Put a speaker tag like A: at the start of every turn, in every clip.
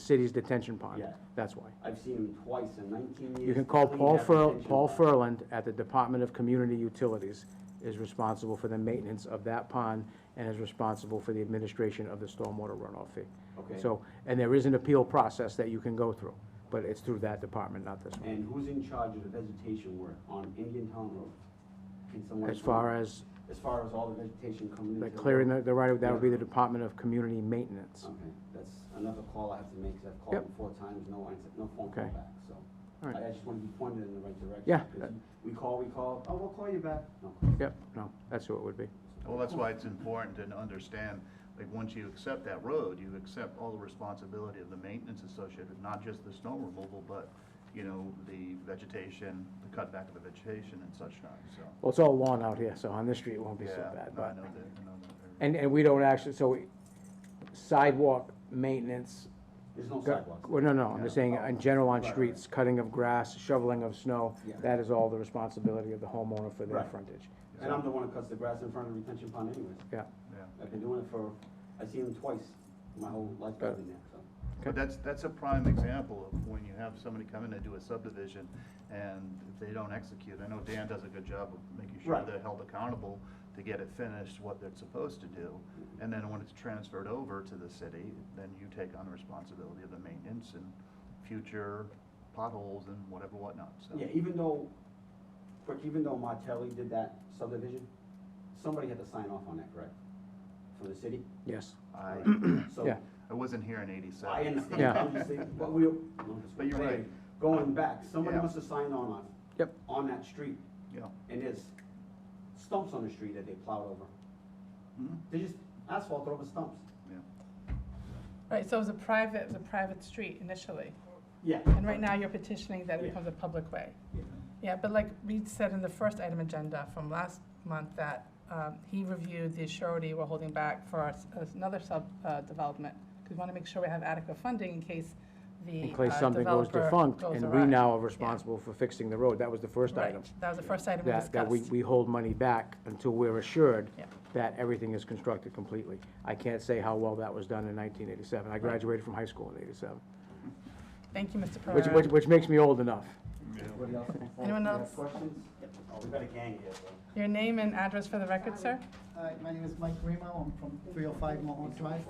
A: city's detention pond.
B: Yeah.
A: That's why.
B: I've seen him twice in nineteen years.
A: You can call
B: clean
A: Paul
B: that
A: Fur,
B: retention
A: Paul
B: pond.
A: Furland at the Department of Community Utilities is responsible for the maintenance of that pond and is responsible for the administration of the stormwater runoff fee.
B: Okay.
A: So, and there is an appeal process that you can go through, but it's through that department, not this one.
B: And who's in charge of the vegetation work on Indian Town Road? Can someone?
A: As far as
B: As far as all the vegetation coming
A: the
B: into.
A: clearing the, the right, of- that would be the
B: Yeah.
A: Department of Community Maintenance.
B: Okay, that's another call I have to make, 'cause I've
A: Yep.
B: called him four times, no answer, no phone call
A: Okay.
B: back, so.
A: All right.
B: I I just want to be pointed in the right direction.
A: Yeah.
B: 'cause We call, we call, oh, we'll call you back. No.
A: Yep, no, that's who it would be.
C: Well, that's why it's important to understand, like, once you accept that road, you accept all the responsibility of the maintenance associated, not just the snow removal, but, you know, the vegetation, the cutback of the vegetation and such not, so.
A: Well, it's all lawn out here, so on this street it won't be so
C: Yeah,
A: bad,
C: no, I
A: but.
C: know that, I know that.
A: And, and we don't actually, so we- sidewalk maintenance,
B: There's no
A: Go-
B: sidewalks.
A: Well, no, no, I'm just saying,
B: Yeah. Oh,
A: in general, on
B: Right, right.
A: streets, cutting of grass, shoveling of snow,
B: Yeah.
A: that is all the responsibility of the homeowner for their
B: Right.
A: frontage.
B: And I'm the one who cuts the grass in front of the retention pond anyways.
A: Yeah,
C: Yeah.
B: I've been doing it for, I've seen him twice, my whole life I've been there, so.
C: But that's, that's a prime example of when you have somebody come in and do a subdivision and if they don't execute. I know Dan does a good job of making sure
B: Right.
C: they're held accountable to get it finished, what they're supposed to do. And then when it's transferred over to the city, then you take on the responsibility of the maintenance and future potholes and whatever whatnot, so.
B: Yeah, even though, quick, even though Martelli did that subdivision, somebody had to sign off on that, correct? From the city?
A: yes.
C: I,
B: So,
A: Yeah.
C: I wasn't here in eighty-seven.
B: I understand,
A: Yeah.
B: I'm just saying, but we,
C: But you're right.
B: Going back, somebody
C: Yeah.
B: must have signed on on.
A: Yep.
B: On that street,
C: Yeah.
B: and there's stumps on the street that they plowed over.
C: Mhm.
B: They just asphalt over stumps.
C: Yeah.
D: Right, so it was a private, it was a private street initially,
B: Yeah.
D: and right now you're petitioning that it
B: Yeah.
D: becomes a public way.
B: Yeah.
D: Yeah, but like Reed said in the first item agenda from last month, that um, he reviewed the surety we're holding back for us- us another sub uh, development, because we want to make sure we have adequate funding in case the
A: In case
D: uh,
A: something goes
D: developer
A: defunct,
D: goes
A: and we
D: awry.
A: now are responsible for fixing the road, that was the first
D: Right,
A: item.
D: that was the first item we
A: That, that we,
D: discussed.
A: we hold money back until we're assured
D: Yeah.
A: that everything is constructed completely. I can't say how well that was done in nineteen eighty-seven, I graduated from high school in eighty-seven,
D: Thank you, Mr.
A: which, which,
D: Pereira.
A: which makes me old enough.
B: Anybody else? on the phone?
D: Anyone
B: You have
D: else?
B: Questions? Oh, we got a gang here, so.
D: Your name and address for the record, sir?
E: Hi, my name is Mike Remo, I'm from three oh five Mulholland Drive.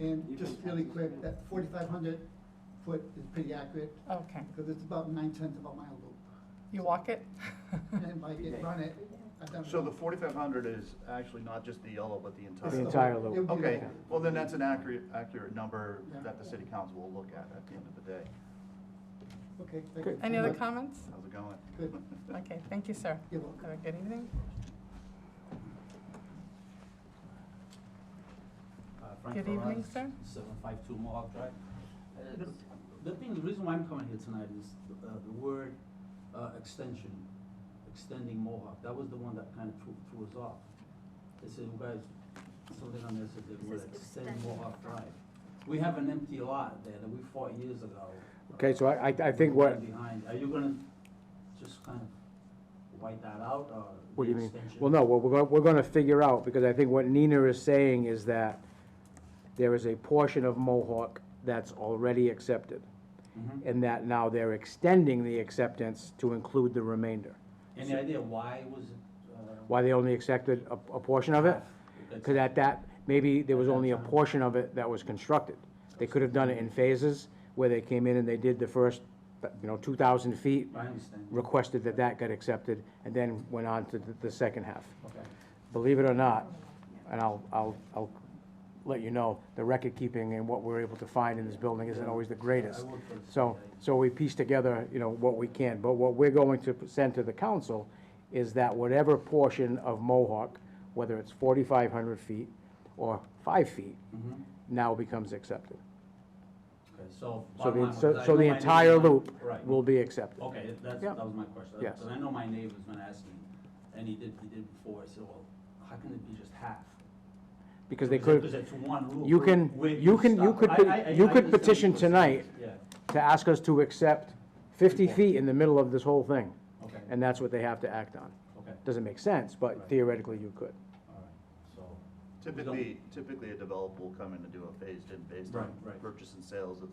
E: And just really quick, that forty-five hundred foot is pretty accurate,
D: Okay.
E: because it's about nine tenths of a mile loop.
D: You walk it?
E: And if I can run it, I've done.
C: So the forty-five hundred is actually not just the yellow, but the entire.
E: It's
A: The entire
E: whole-
A: loop.
E: it'll be the
C: Okay,
E: whole-
C: well, then that's an accurate, accurate number
E: Yeah.
C: that the city council will look at at the end of the day.
E: Okay, thank you.
D: Any other comments?
C: How's it going?
E: Good,
D: Okay, thank you, sir.
E: you're welcome.
D: Have a good evening.
F: Uh, Frank
D: Good
F: Ferraz,
D: evening, sir.
F: 752 Mohawk Drive. Uh, The the thing, the reason why I'm coming here tonight is uh, the word uh, extension, extending Mohawk, that was the one that kind of threw threw us off. They said, you guys, something on there said the word
G: This is
F: extend
G: extending
F: Mohawk Drive. We have an empty lot there that we fought years ago.
A: Okay, so I, I, I think what,
F: Behind, are you gonna just kind of wipe that out or?
A: What do you
F: the
A: mean?
F: extension?
A: Well, no, what we're, go- we're gonna figure out, because I think what Nina is saying is that there is a portion of Mohawk that's already accepted,
C: Mm-hmm.
F: Mhm.
A: and that now they're extending the acceptance to include the remainder.
F: Any idea why was it? uh,
A: Why they only accepted a, a portion of it?
F: That's-
A: Because at that, maybe there was only a portion of it that was constructed. They could have done it in phases, where they came in and they did the first, you know, two thousand feet,
F: I understand.
A: requested that that got accepted, and then went on to the, the second half.
F: Okay.
A: believe it or not, and I'll, I'll, I'll let you know, the record keeping and what we're able to find in this building isn't always the greatest.
F: I work for the
A: So,
F: CIA.
A: so we piece together, you know, what we can, but what we're going to send to the council is that whatever portion of Mohawk, whether it's forty-five hundred feet or five feet,
F: Mhm.
A: now becomes accepted.
F: Okay, so.
A: So
F: bottom
A: the,
F: line was
A: so
F: I
A: so
F: know
A: the
F: my
A: entire
F: neighbor-
A: loop
F: Right.
A: will be accepted.
F: Okay, that- that's,
A: Yeah.
F: that was my question.
A: Yes.
F: Because I know my neighbor's been asking, and he did, he did before, I said, well, how can it be just half?
A: Because they
F: Because
A: could,
F: it's one loop.
A: you can-
F: with
A: you can- you
F: stuff.
A: could
F: I-
A: pe-
F: I- I-
A: you
F: I
A: could
F: understand
A: petition
F: what you're saying.
A: to ask us to accept fifty feet in the middle of this whole thing,
F: Yeah, okay,
A: and that's what they have to act on.
F: okay,
A: Doesn't make sense, but
F: Right.
A: theoretically you could.
F: all right, so.
C: Typically, typically a developer will come in and do a phased-in based on
F: Right, right.
C: purchase and sales of,